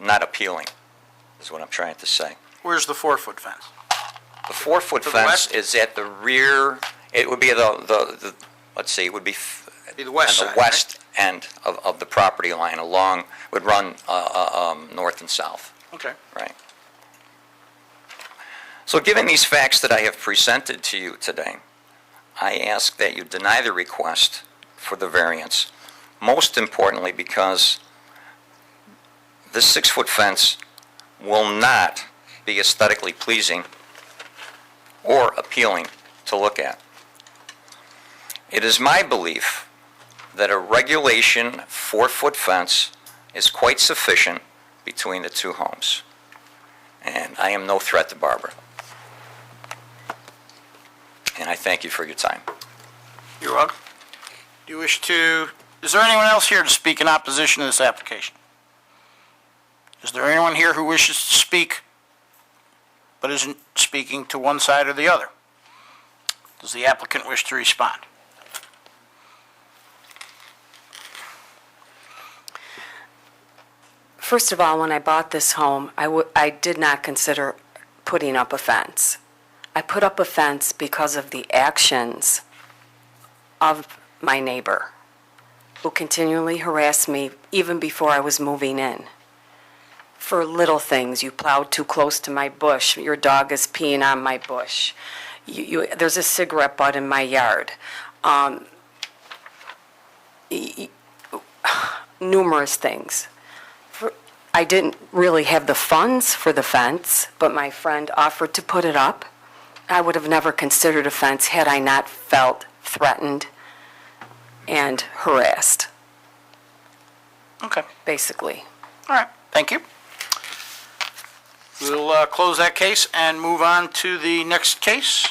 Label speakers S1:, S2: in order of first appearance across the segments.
S1: not appealing, is what I'm trying to say.
S2: Where's the four-foot fence?
S1: The four-foot
S2: To the
S1: fence
S2: west?
S1: is at the rear, it would be the, the, the- let's see, it would be f-
S2: Be the west side,
S1: On
S2: right?
S1: the west end of, of the property line along, would run uh, uh, um, north and south,
S2: Okay.
S1: right? So given these facts that I have presented to you today, I ask that you deny the request for the variance, most importantly because this six-foot fence will not be aesthetically pleasing or appealing to look at. It is my belief that a regulation four-foot fence is quite sufficient between the two homes. And I am no threat to Barbara. And I thank you for your time.
S2: You're welcome. Do you wish to, is there anyone else here to speak in opposition to this application? Is there anyone here who wishes to speak but isn't speaking to one side or the other? Does the applicant wish to respond?
S3: First of all, when I bought this home, I wa- I did not consider putting up a fence. I put up a fence because of the actions of my neighbor, who continually harassed me even before I was moving in. For little things, you plowed too close to my bush, your dog is peeing on my bush, you, you, there's a cigarette butt in my yard. Um, y- y- Numerous things. I didn't really have the funds for the fence, but my friend offered to put it up. I would have never considered a fence had I not felt threatened and harassed,
S2: Okay,
S3: basically.
S2: all right, thank you. We'll uh, close that case and move on to the next case.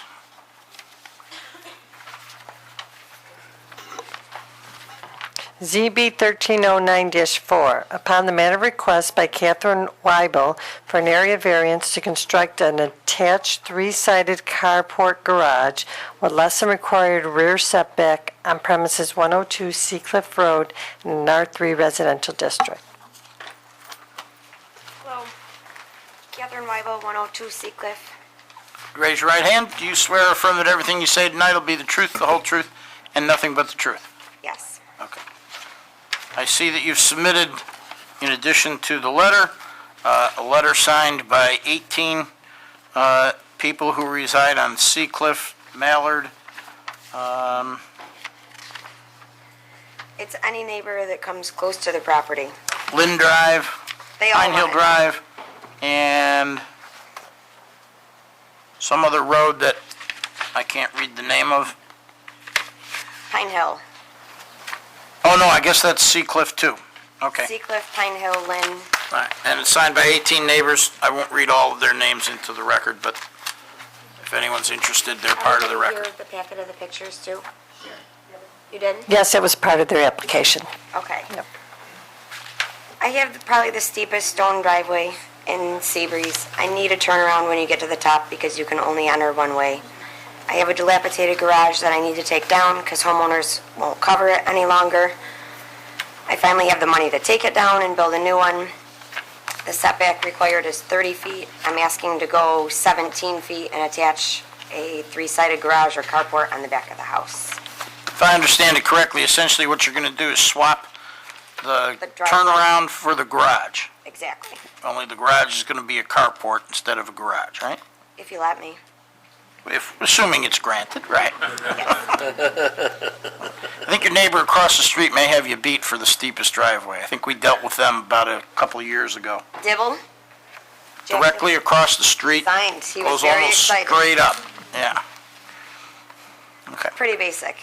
S4: ZB 1309-4, upon the matter of request by Catherine Weibel for an area variance to construct an attached three-sided carport garage with less than required rear setback on premises 102 Seacliff Road in an R3 residential district.
S5: Hello. Catherine Weibel, 102 Seacliff.
S2: Raise your right hand. Do you swear or affirm that everything you say tonight will be the truth, the whole truth, and nothing but the truth?
S5: Yes.
S2: Okay. I see that you've submitted, in addition to the letter, uh, a letter signed by 18 uh, people who reside on Sea Cliff, Mallard.
S5: It's any neighbor that comes close to the property.
S2: Lynn Drive,
S5: They all
S2: Pine Hill
S5: want it.
S2: Drive, and some other road that I can't read the name of.
S5: Pine Hill.
S2: Oh, no, I guess that's Sea Cliff too. Okay.
S5: Seacliff, Pine Hill, Lynn.
S2: Right, and it's signed by 18 neighbors. I won't read all of their names into the record, but if anyone's interested, they're part of the record.
S5: You the packet of the pictures too? You did?
S4: Yes, that was part of their application.
S5: Okay.
S4: Yep.
S5: I have the- probably the steepest stone driveway in Seabreeze. I need a turnaround when you get to the top because you can only enter one way. I have a dilapidated garage that I need to take down because homeowners won't cover it any longer. I finally have the money to take it down and build a new one. The setback required is 30 feet. I'm asking to go 17 feet and attach a three-sided garage or carport on the back of the house.
S2: If I understand it correctly, essentially what you're going to do is swap the
S5: The driveway.
S2: turnaround for the garage.
S5: Exactly,
S2: Only the garage is going to be a carport instead of a garage, right?
S5: if you let me.
S2: If, assuming it's granted, right? I think your neighbor across the street may have you beat for the steepest driveway. I think we dealt with them about a couple of years ago.
S5: Dibble?
S2: Directly across the street.
S5: Signed, he was
S2: goes
S5: very
S2: almost
S5: excited.
S2: straight up, yeah.
S5: Pretty basic.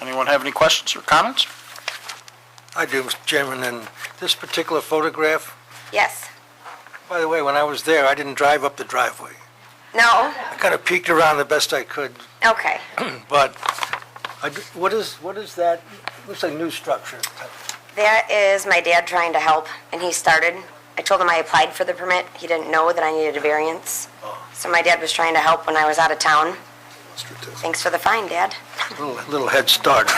S2: Anyone have any questions or comments?
S6: I do, Mr. Chairman, and this particular photograph,
S5: Yes.
S6: by the way, when I was there, I didn't drive up the driveway.
S5: No?
S6: I kind of peeked around the best I could,
S5: Okay.
S6: but I d- what is, what is that? Looks like new structure.
S5: That is my dad trying to help, and he started. I told him I applied for the permit. He didn't know that I needed a variance.
S2: Oh.
S5: So my dad was trying to help when I was out of town. Thanks for the fine, Dad.
S6: Little- Little head start.